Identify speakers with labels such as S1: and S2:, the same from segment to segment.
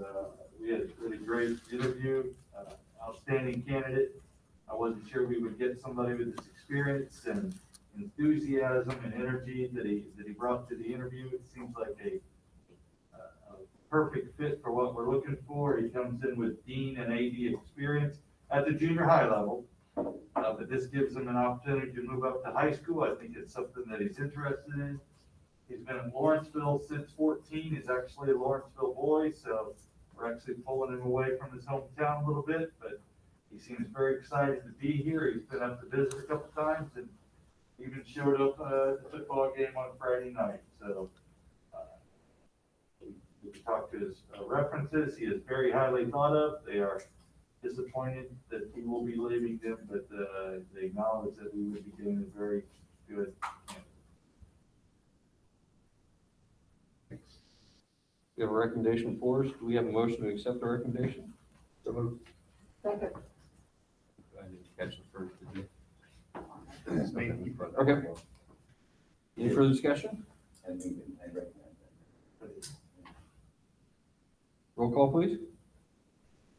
S1: uh, great interview, uh, outstanding candidate. I wasn't sure we would get somebody with this experience and enthusiasm and energy that he, that he brought to the interview. It seems like a uh, a perfect fit for what we're looking for. He comes in with dean and AD experience at the junior high level. Uh, but this gives him an opportunity to move up to high school. I think it's something that he's interested in. He's been in Lawrenceville since fourteen. He's actually a Lawrenceville boy, so we're actually pulling him away from his hometown a little bit, but he seems very excited to be here. He's been up to visit a couple times and even showed up uh, at the football game on Friday night, so. uh, we talked to his uh, references, he is very highly thought of, they are disappointed that he will be leaving them, but, uh, they acknowledge that we would be doing a very good. candidate.
S2: We have a recommendation for us. Do we have a motion to accept the recommendation?
S3: Second.
S2: I didn't catch the first, did you?
S4: It's me.
S2: Okay. Any further discussion?
S4: And we can- I recommend that.
S2: Roll call, please.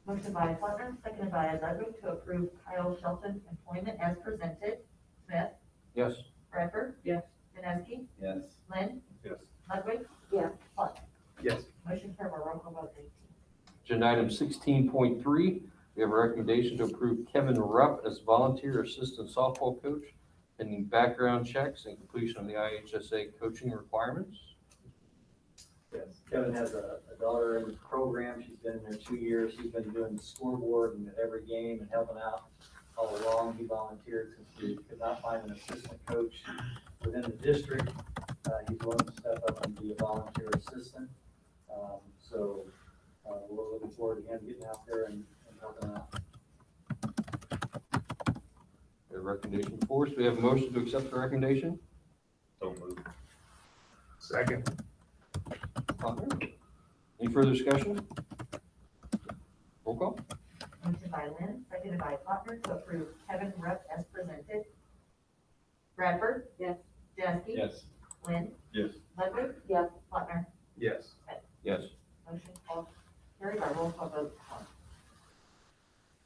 S3: Motion by Putnam, seconded by Ludwig to approve Kyle Shelton's employment as presented. Smith,
S2: Yes.
S3: Bradford. Yes. Janeski,
S4: Yes.
S3: Lynn,
S1: Yes.
S3: Ludwig. Yes. Putnam.
S4: Yes.
S3: Motion carried by roll call vote eighteen.
S2: Agenda item sixteen point three, we have a recommendation to approve Kevin Rupp as volunteer assistant softball coach pending background checks and completion of the IHSA coaching requirements.
S5: Yes, Kevin has a, a daughter in the program, she's been there two years, she's been doing the scoreboard and every game and helping out all along, he volunteered since we could not find an assistant coach within the district. Uh, he's willing to step up and be a volunteer assistant, um, so, uh, we're looking forward to him getting out there and, and helping out.
S2: We have A recommendation for us. Do we have a motion to accept the recommendation?
S4: So moved.
S6: Second.
S2: Putnam? Any further discussion? Roll call.
S3: Motion by Lynn, seconded by Putnam to approve Kevin Rupp as presented. Bradford. Yes. Janeski.
S4: Yes.
S3: Lynn,
S1: Yes.
S3: Ludwig. Yes. Putnam.
S6: Yes.
S2: Yes.
S3: Motion called, carried by roll call vote one.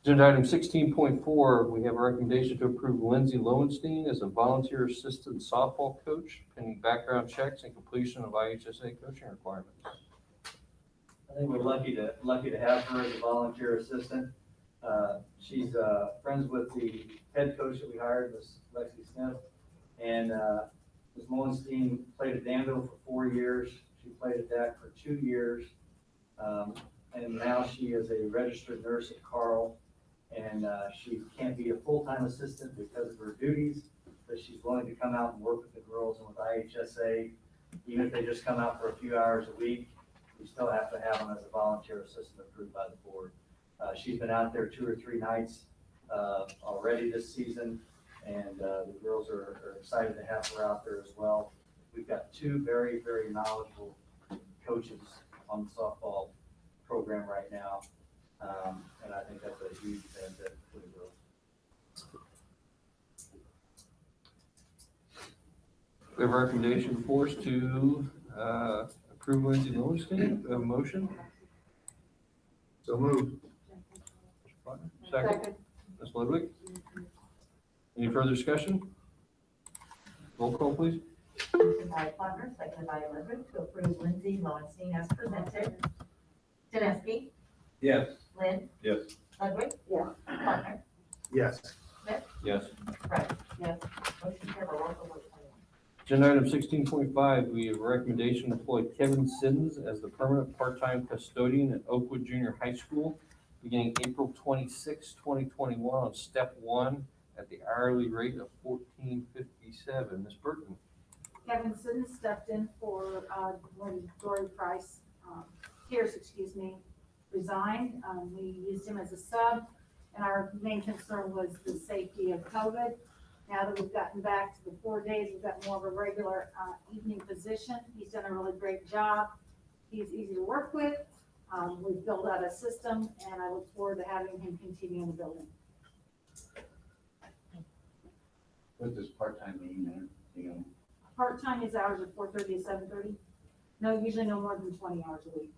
S2: Agenda item sixteen point four, we have a recommendation to approve Lindsay Lowenstein as a volunteer assistant softball coach pending background checks and completion of IHSA coaching requirements.
S5: I think we're lucky to, lucky to have her as a volunteer assistant. Uh, She's uh, friends with the head coach that we hired, Miss Lexi Smith. And uh, Ms. Mullenstein played at Danville for four years. She played at Dak for two years. Um, And now she is a registered nurse at Carl. And uh, she can't be a full-time assistant because of her duties, but she's willing to come out and work with the girls and with IHSA. Even if they just come out for a few hours a week, we still have to have them as a volunteer assistant approved by the board. Uh, she's been out there two or three nights, uh, already this season, and, uh, the girls are, are excited to have her out there as well. We've got two very, very knowledgeable coaches on the softball program right now, um, and I think that's a huge benefit for the girls.
S2: We have a recommendation for us to uh, approve Lindsay Lowenstein, Do we have a motion.
S6: So moved.
S2: Second, Ms. Ludwig. Any further discussion? Roll call, please.
S3: Motion by Plattner, seconded by Ludwig to approve Lindsay Lowenstein as presented. Janeski,
S4: Yes.
S3: Lynn,
S4: Yes.
S3: Ludwig. Yes. Plattner,
S6: Yes.
S2: Yes.
S3: Right. Yes. Motion carried by roll call vote twenty-one.
S2: Agenda item sixteen point five, we have a recommendation to employ Kevin Siddons as the permanent part-time custodian at Oakwood Junior High School beginning April 26, twenty twenty-one on step one at the hourly rate of fourteen fifty-seven. Ms. Burton,
S7: Kevin Sutton stepped in for, uh, when Dory Price, um, Pierce, excuse me, resigned. Um, we used him as a sub, and our main concern was the safety of COVID. Now that we've gotten back to the four days, we've got more of a regular, uh, evening position. He's done a really great job. He's easy to work with. Um, we've built out a system, and I look forward to having him continue in the building.
S4: What does part-time mean, there? you know?
S7: Part-time, his hours are four thirty to seven thirty. No, usually no more than twenty hours a week.